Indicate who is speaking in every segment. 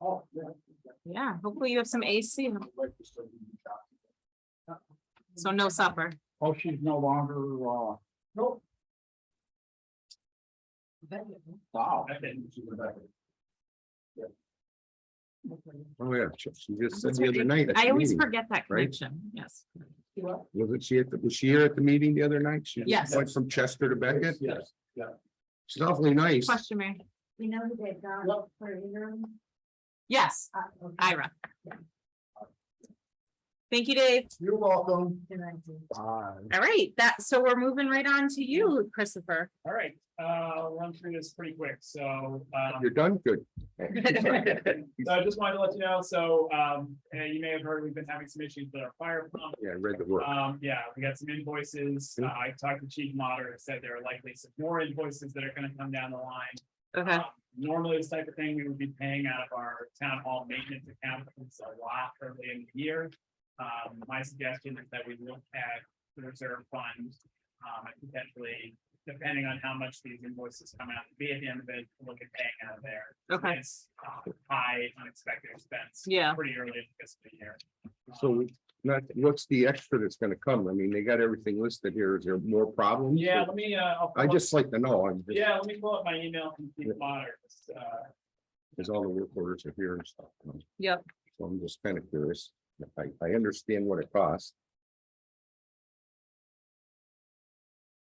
Speaker 1: Oh, yeah.
Speaker 2: Yeah, hopefully you have some AC, so no supper.
Speaker 1: Oh, she's no longer, uh. Nope. Wow.
Speaker 3: Oh, yeah, she she just said the other night. at
Speaker 2: I
Speaker 3: the
Speaker 2: always
Speaker 3: meeting.
Speaker 2: forget that
Speaker 3: right?
Speaker 2: connection, yes.
Speaker 3: Wasn't she at, the was she here at the meeting the other night? She
Speaker 2: Yes.
Speaker 3: Went from Chester to Beckett?
Speaker 1: Yes,
Speaker 3: She's awfully nice.
Speaker 2: Question, Mary?
Speaker 4: We know who they've got for interim.
Speaker 2: Yes,
Speaker 4: uh, okay.
Speaker 2: Ira. Thank you, Dave.
Speaker 1: you're welcome.
Speaker 4: Then I do.
Speaker 2: All right, that, so we're moving right on to you, Christopher.
Speaker 5: All right, uh, I'll run through this pretty quick, so, um,
Speaker 3: You're done good.
Speaker 5: so I just wanted to let you know, so, um, and you may have heard, we've been having some issues with our fire pump.
Speaker 3: Yeah, I read the word.
Speaker 5: Um, yeah, we got some invoices, Uh, I talked to Chief Moder, said there are likely some more invoices that are gonna come down the line.
Speaker 2: Okay,
Speaker 5: Um, Normally, this type of thing, we would be paying out of our town hall maintenance account, but it's a lot early in the year. Um, my suggestion is that we look at the reserve fund, um, and potentially, depending on how much these invoices come out to be at the end of it, look at paying out of there.
Speaker 2: okay,
Speaker 5: It's uh, high unexpected expense.
Speaker 2: Yeah.
Speaker 5: Pretty early in the fiscal year.
Speaker 3: So not, what's the extra that's gonna come? I mean, they got everything listed here. Is there more problems?
Speaker 5: Yeah, let me, uh. I'll
Speaker 3: I
Speaker 5: pull up-
Speaker 3: just like to know, I'm just,
Speaker 5: Yeah, let me pull up my email from Chief Moder, uh,
Speaker 3: because all the work orders are here and stuff. you know.
Speaker 2: Yep.
Speaker 3: So I'm just kind of curious. I, I understand what it costs.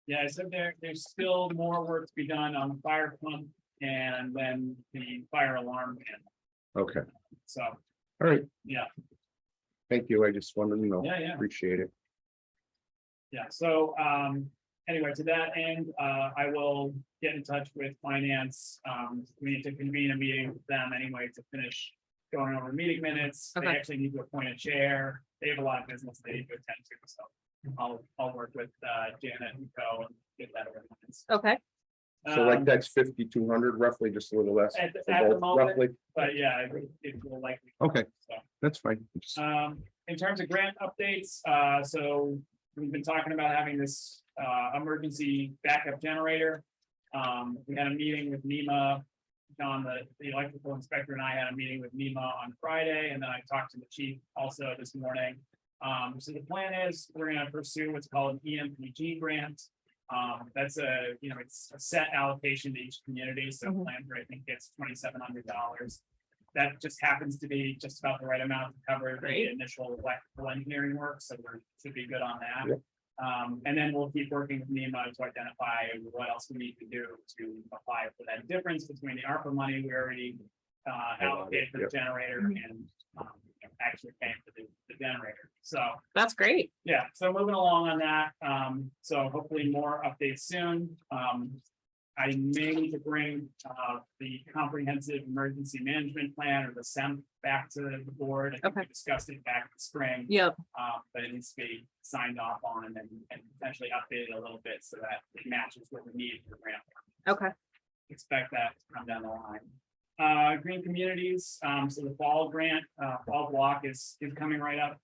Speaker 5: Yeah, so there, there's still more work to be done on the fire pump and then the fire alarm panel.
Speaker 3: Okay,
Speaker 5: So,
Speaker 3: all right.
Speaker 5: Yeah.
Speaker 3: Thank you. I just wanted to know.
Speaker 5: yeah, yeah,
Speaker 3: Appreciate it.
Speaker 5: yeah. So, um, anyway, to that end, uh, I will get in touch with finance. Um, we need to convene a meeting with them anyway to finish going over meeting minutes. They
Speaker 2: Okay.
Speaker 5: actually need to appoint a chair. They have a lot of business they need to attend to, so I'll, I'll work with, uh, Janet and Co. and get that over. the minutes.
Speaker 2: okay,
Speaker 3: So like
Speaker 5: Um,
Speaker 3: that's fifty-two hundred roughly, just a little less.
Speaker 5: At, the-
Speaker 3: for
Speaker 5: at the
Speaker 3: both,
Speaker 5: moment,
Speaker 3: roughly.
Speaker 5: But yeah, it would- it will likely.
Speaker 3: Okay.
Speaker 5: So,
Speaker 3: That's fine. It's-
Speaker 5: Um, in terms of grant updates, uh, so we've been talking about having this, uh, emergency backup generator. Um, we had a meeting with NEMA, John, the, the electrical inspector and I had a meeting with NEMA on Friday, and then I talked to the chief also this morning. Um, so the plan is, we're gonna pursue what's called an E EMPG grant. Um, that's a, you know, it's a set allocation to each community, so
Speaker 2: Mhm.
Speaker 5: Landry, I think, gets twenty-seven hundred dollars. That just happens to be just about the right amount to cover
Speaker 2: Great.
Speaker 5: the initial electrical engineering work, so we should be good on that.
Speaker 3: Yep.
Speaker 5: Um, and then we'll keep working with NEMA to identify what else we need to do to apply for that difference between the ARPA money we already uh, allocated for the
Speaker 3: Yep.
Speaker 5: generator and um, actually paying for the, the generator. So,
Speaker 2: that's great.
Speaker 5: yeah, so moving along on that, um, so hopefully more updates soon, um. I may need to bring, uh, the comprehensive emergency management plan or the SEM back to the board. I think we
Speaker 2: Okay.
Speaker 5: Discussed it back in the spring.
Speaker 2: Yep,
Speaker 5: Uh, but it needs to be signed off on and, and potentially updated a little bit so that it matches what we need for grant
Speaker 2: okay,
Speaker 5: expect that to come down the line. Uh, green communities, um, so the fall grant, uh, fall block is, is coming right up.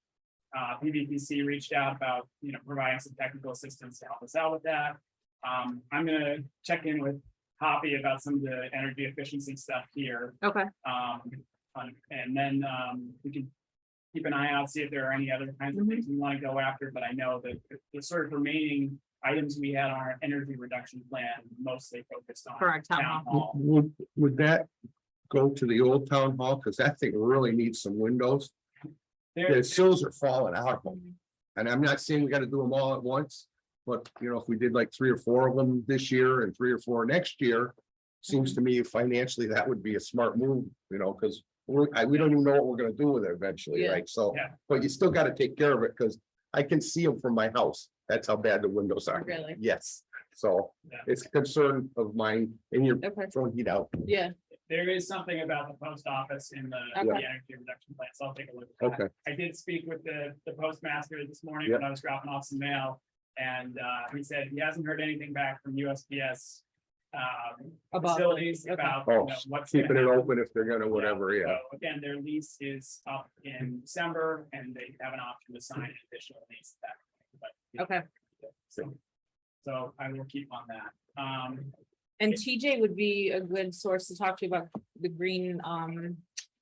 Speaker 5: Uh, PVPC reached out about, you know, providing some technical assistance to help us out with that. Um, I'm gonna check in with Hoppy about some of the energy efficiency stuff here.
Speaker 2: okay,
Speaker 5: Um, on- and then, um, we can keep an eye out, see if there are any other kinds of things we want to go after, but I know that the- the sort of remaining items we had on our energy reduction plan mostly focused on
Speaker 2: for our town
Speaker 5: town
Speaker 2: hall.
Speaker 5: hall.
Speaker 3: Would, would that go to the old town hall? Because that thing really needs some windows.
Speaker 5: There,
Speaker 3: The sills are falling out. of 'em. And I'm not saying we gotta do them all at once, but you know, if we did like three or four of them this year and three or four next year. Seems to me financially, that would be a smart move, you know, because we're, I, we don't even know what we're gonna do with it eventually,
Speaker 2: Yeah.
Speaker 3: right? So,
Speaker 5: Yeah.
Speaker 3: but you still gotta take care of it, because I can see them from my house. That's how bad the windows are.
Speaker 2: Really?
Speaker 3: Yes, so
Speaker 5: Yeah.
Speaker 3: it's a concern of mine and you're
Speaker 2: Okay,
Speaker 3: throwing heat out.
Speaker 2: yeah,
Speaker 5: there is something about the post office in the, the
Speaker 2: Okay.
Speaker 5: energy reduction plan, so I'll take a look. at that.
Speaker 3: Okay,
Speaker 5: I did speak with the, the postmaster this morning when I was dropping off some mail. And, uh, he said he hasn't heard anything back from USPS, um, facilities
Speaker 2: okay.
Speaker 5: about, you know,
Speaker 3: Oh,
Speaker 5: what's. gonna
Speaker 3: keeping it
Speaker 5: happen.
Speaker 3: open if they're gonna, whatever, yeah.
Speaker 5: So Again, their lease is up in December and they have an option to sign an additional lease that. but, you know,
Speaker 2: okay.
Speaker 5: So, so I will keep on that. Um,
Speaker 2: And TJ would be a good source to talk to about the green, um,